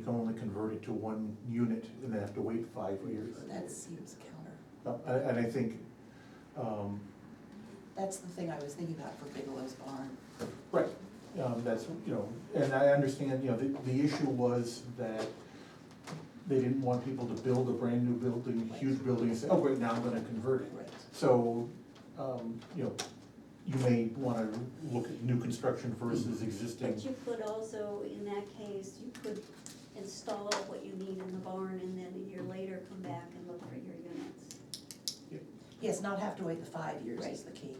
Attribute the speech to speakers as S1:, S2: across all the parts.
S1: can only convert it to one unit and then have to wait five years.
S2: That seems counter.
S1: Uh, And, and I think, um,
S2: That's the thing I was thinking about for Bigelow's barn.
S1: Right, um, that's, you know, and I understand, you know, the, the issue was that they didn't want people to build a brand new building, huge building, and say, oh, great, now I'm gonna convert it.
S2: Right.
S1: So, um, you know, you may wanna look at new construction versus existing.
S3: But you could also, in that case, you could install what you need in the barn and then a year later come back and look for your units.
S2: Yes, not have to wait the five years is the key.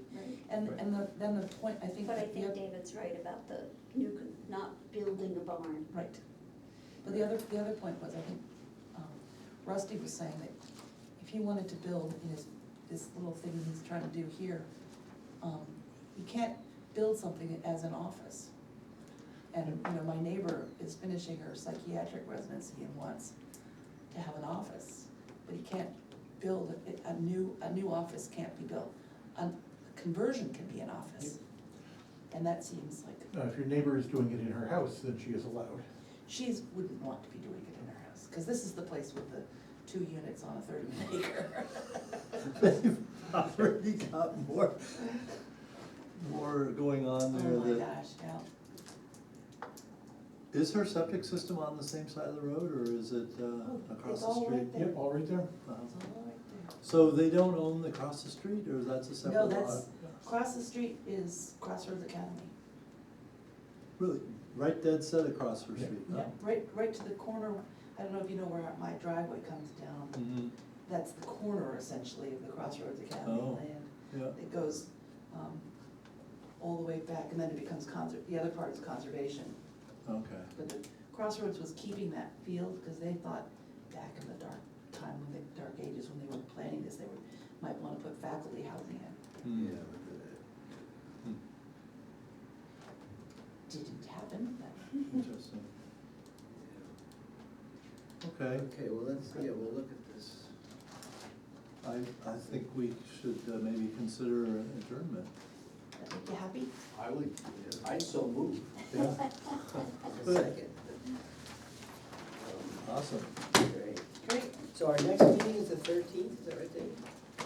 S2: And,
S1: Right.
S2: and the, then the point, I think.
S3: But I
S2: that the
S3: think
S2: oth-
S3: David's right about the new, con- not building a barn.
S2: Right. But the other, the other point was, I think um, Rusty was saying that if he wanted to build in his, this little thing he's trying to do here, um, you can't build something as an office. And, you know, my neighbor is finishing her psychiatric residency and wants to have an office, but he can't build, a- a new, a new office can't be built. A conversion can be an office. And that seems like.
S1: Now, Uh, if your neighbor is doing it in her house, then she is allowed.
S2: She's, wouldn't want to be doing it in her house, because this is the place with the two units on a thirty acre.
S4: They've already got more, more going
S2: Oh
S4: on
S2: my
S4: there that,
S2: gosh, yeah.
S4: is her septic system on the same side of the road, or is it
S2: Oh,
S4: uh, across
S2: it's
S4: the
S2: all
S4: street?
S2: right there.
S1: Yep, all right there.
S4: Uh-huh.
S2: It's all right
S4: So they don't own the across the street, or that's a
S2: there.
S4: separate
S2: No,
S4: lot?
S2: that's, across the street is Crossroads Academy.
S4: Really, right dead set across her
S1: Yeah.
S4: street?
S2: Yeah, right, right to the corner, I don't know if you know where my driveway comes down,
S4: Mm-hmm,
S2: that's the corner essentially of the Crossroads Academy
S4: Oh.
S2: land.
S4: yeah,
S2: It goes, um, all the way back, and then it becomes conser, the other part is conservation.
S4: okay.
S2: But the Crossroads was keeping that field because they thought back in the dark time, when the dark ages, when they were planning this, they were, might wanna put faculty housing in.
S4: Hmm. Hmm,
S2: Didn't happen, but
S4: Interesting. Okay,
S5: Okay, well, let's, yeah, we'll look at this.
S4: I, I think we should uh, maybe consider an adjournment.
S2: that make you happy?
S5: I would, I so move. Second. Um,
S4: Awesome.
S5: Great.
S2: Great.
S5: So our next meeting is the thirteenth, is that right, Dave?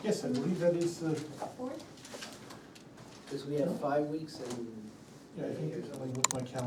S1: Yes, I believe that is, uh,
S3: Fourth?
S5: Because we have five weeks and.
S1: yeah, I think, it's- I look at my calendar